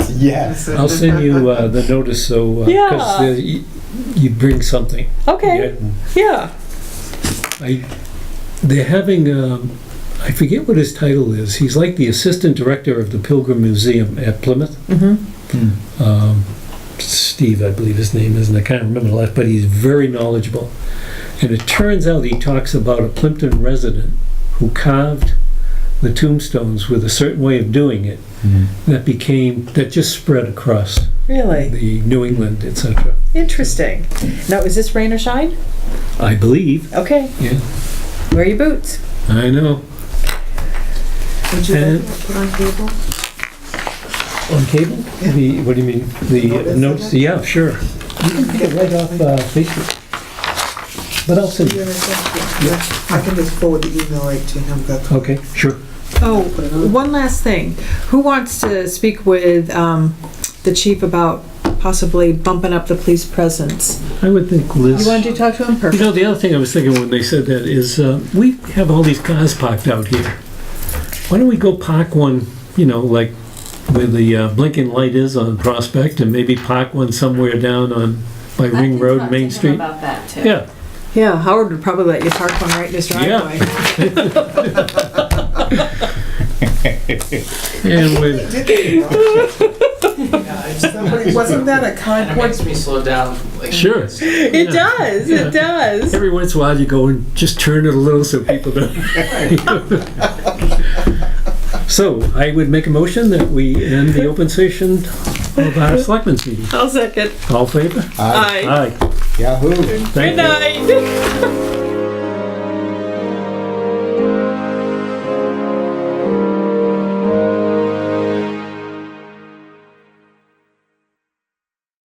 Yes. I'll send you uh, the notice so, uh 'cause Yeah. uh, you you bring something. Okay, yeah. I, they're having, um, I forget what his title is. He's like the assistant director of the Pilgrim Museum at Plymouth. Mhm. Hmm. Um, Steve, I believe his name is, and I can't remember the last, but he's very knowledgeable. And it turns out he talks about a Plimpton resident who carved the tombstones with a certain way of doing it Hmm. that became, that just spread across Really? the New England, etc. Interesting. Now, is this rain or shine? I believe. Okay, Yeah, wear your boots. I know. Would you And- like to put on cable? On cable? The, what do you mean? The Notice notes, it? yeah, sure. You can pick it right off uh, Facebook. But I'll send Yeah, you. that's- yeah. I can just forward the email right to him, that's Okay, sure. Oh, one last thing. Who wants to speak with um, the chief about possibly bumping up the police presence? I would think You Liz. wanted to talk to him? You Perfect. know, the other thing I was thinking when they said that is, uh, we have all these cars parked out here. Why don't we go park one, you know, like where the uh, blinking light is on Prospect and maybe park one somewhere down on, by I Ring can talk Road, to Main him Street? About that too. Yeah, Yeah, Howard would probably let you park one right in his driveway. and with, Somebody- "Oh, Wasn't that a Kind of Concord? makes me slow down. Like, sure. It Yeah. does, Yeah. it does. Every once in a while, you go and just turn it a little so people don't. So I would make a motion that we end the open session of our selectmen's meeting. I'll second. All in favor? Aye. Aye. Aye. Yahoo. Thank you. night.